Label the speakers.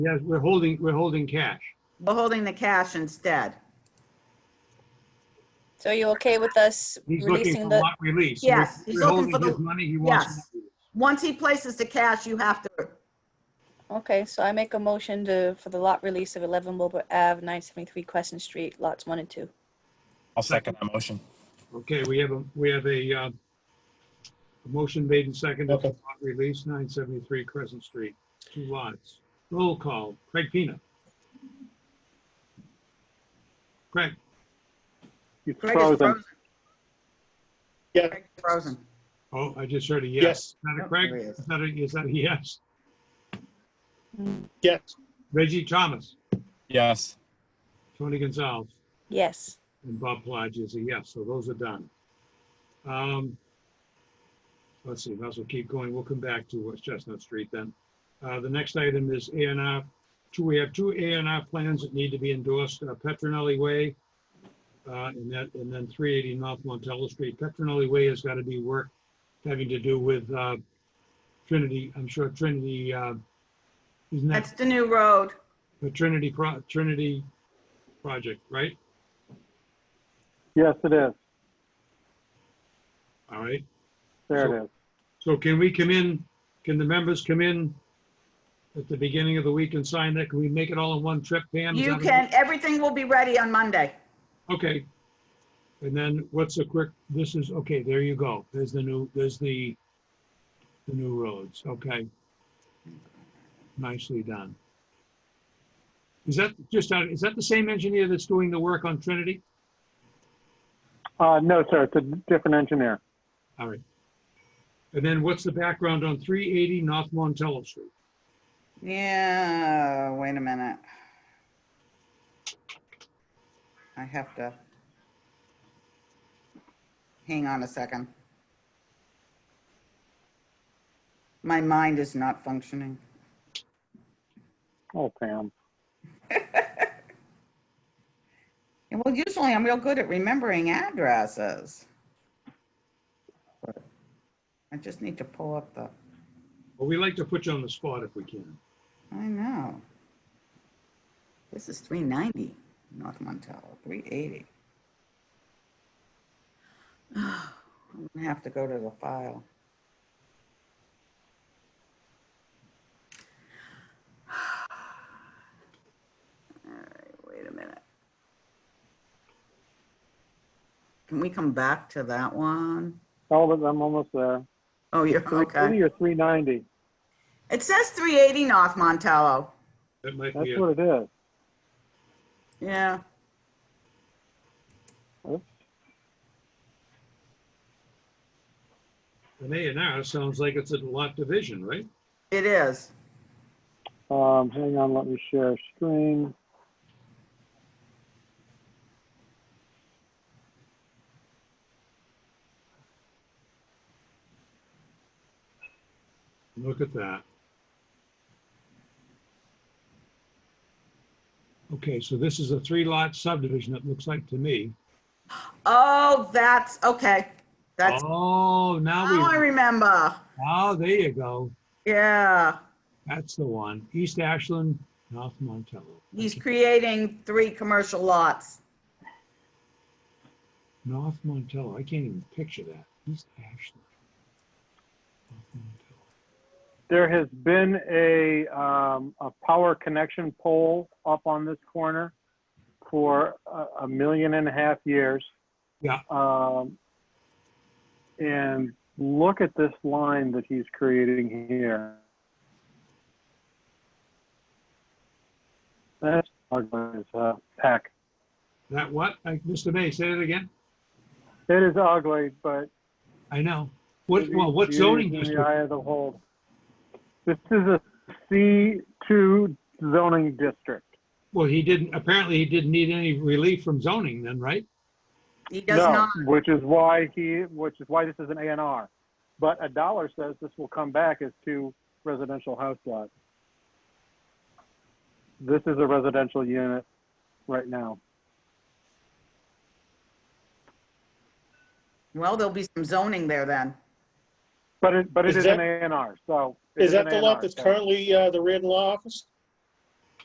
Speaker 1: Yes, we're holding, we're holding cash.
Speaker 2: We're holding the cash instead.
Speaker 3: So are you okay with us
Speaker 1: He's looking
Speaker 3: releasing
Speaker 1: for
Speaker 3: the,
Speaker 1: lot release.
Speaker 2: Yes,
Speaker 1: We're-
Speaker 2: he's
Speaker 1: We're
Speaker 2: looking
Speaker 1: holding
Speaker 2: for the-
Speaker 1: his money, he wants.
Speaker 2: Yes.
Speaker 1: lot release.
Speaker 2: Once he places the cash, you have to,
Speaker 3: okay, so I make a motion to, for the lot release of 11 Wilbur Ave, 973 Crescent Street, lots 1 and 2.
Speaker 4: I'll second that motion.
Speaker 1: Okay, we have a, we have a, uh, a motion made and seconded, for lot release, 973 Crescent Street, two lots. Roll call, Craig Pina. Craig,
Speaker 5: You're
Speaker 2: Craig is
Speaker 5: frozen.
Speaker 2: frozen.
Speaker 5: Yeah.
Speaker 2: Craig is frozen.
Speaker 1: oh, I just heard a yes.
Speaker 5: Yes,
Speaker 1: Is that a
Speaker 2: Yep,
Speaker 1: Craig?
Speaker 2: there he is.
Speaker 1: Is that a, is that a yes?
Speaker 5: yes,
Speaker 1: Reggie Thomas,
Speaker 4: Yes,
Speaker 1: Tony Gonzalez,
Speaker 3: Yes,
Speaker 1: and Bob Plodge is a yes, so those are done. Um, Let's see, might as well keep going. We'll come back to West Chestnut Street then. Uh, The next item is A and R. Two, we have two A and R plans that need to be endorsed, uh, Petronelli Way, uh, and that, and then 380 North Montella Street. Petronelli Way has got to be work having to do with uh, Trinity, I'm sure Trinity, uh, isn't that
Speaker 2: That's the new road.
Speaker 1: the Trinity, pro Trinity project, right?
Speaker 5: yes, it is.
Speaker 1: All right.
Speaker 5: There it is.
Speaker 1: So can we come in, can the members come in at the beginning of the week and sign that? Can we make it all in one trip, Pam? Is
Speaker 2: You
Speaker 1: that-
Speaker 2: can, everything will be ready on Monday.
Speaker 1: Okay. And then what's a quick, this is, okay, there you go. There's the new, there's the, the new roads, okay. Nicely done. Is that just, out- is that the same engineer that's doing the work on Trinity?
Speaker 5: Uh, no, sir, it's a different engineer.
Speaker 1: All right. And then what's the background on 380 North Montello Street?
Speaker 2: Yeah, wait a minute. I have to. Hang on a second. My mind is not functioning.
Speaker 5: Oh, Pam.
Speaker 2: Well, usually I'm real good at remembering addresses. But I just need to pull up the,
Speaker 1: Well, we like to put you on the spot if we can.
Speaker 2: I know. This is 390 North Montello, 380. I'm gonna have to go to the file. All right, wait a minute. Can we come back to that one?
Speaker 5: Oh, but I'm almost there.
Speaker 2: Oh, you're, okay.
Speaker 5: 380 or 390?
Speaker 2: It says 380 North Montello.
Speaker 1: That might
Speaker 5: That's
Speaker 1: be, a-
Speaker 5: what it is.
Speaker 2: Yeah.
Speaker 1: an A and R sounds like it's a lot division, right?
Speaker 2: It is.
Speaker 5: Um, hang on, let me share screen.
Speaker 1: Look at that. Okay, so this is a three-lot subdivision, it looks like to me.
Speaker 2: Oh, that's okay. That's
Speaker 1: Oh,
Speaker 2: how I
Speaker 1: now we,
Speaker 2: remember.
Speaker 1: oh, there you go.
Speaker 2: Yeah.
Speaker 1: That's the one. East Ashland, North Montello.
Speaker 2: He's creating three commercial lots.
Speaker 1: North Montello, I can't even picture that. East Ashland. North Montello.
Speaker 5: There has been a, um, a power connection pole up on this corner for a, a million and a half years.
Speaker 1: Yeah.
Speaker 5: Um, and look at this line that he's creating here. That's ugly as a heck.
Speaker 1: That what? I- Mr. May, say that again?
Speaker 5: It is ugly, but
Speaker 1: I know. What,
Speaker 5: It
Speaker 1: well, what
Speaker 5: is
Speaker 1: zoning
Speaker 5: In
Speaker 1: district?
Speaker 5: the eye of the whole. This is a C2 zoning district.
Speaker 1: Well, he didn't, apparently he didn't need any relief from zoning then, right?
Speaker 2: He does
Speaker 5: no,
Speaker 2: not.
Speaker 5: Which is why he, which is why this is an ANR. But a dollar says this will come back as two residential house lots. This is a residential unit right now.
Speaker 2: Well, there'll be some zoning there then.
Speaker 5: But it, but it
Speaker 6: Is
Speaker 5: is an
Speaker 6: that-
Speaker 5: ANR, so. it
Speaker 6: Is
Speaker 5: an
Speaker 6: that the lot
Speaker 5: A&R,
Speaker 6: that's
Speaker 5: so-
Speaker 6: currently uh, the Reardon Law Office?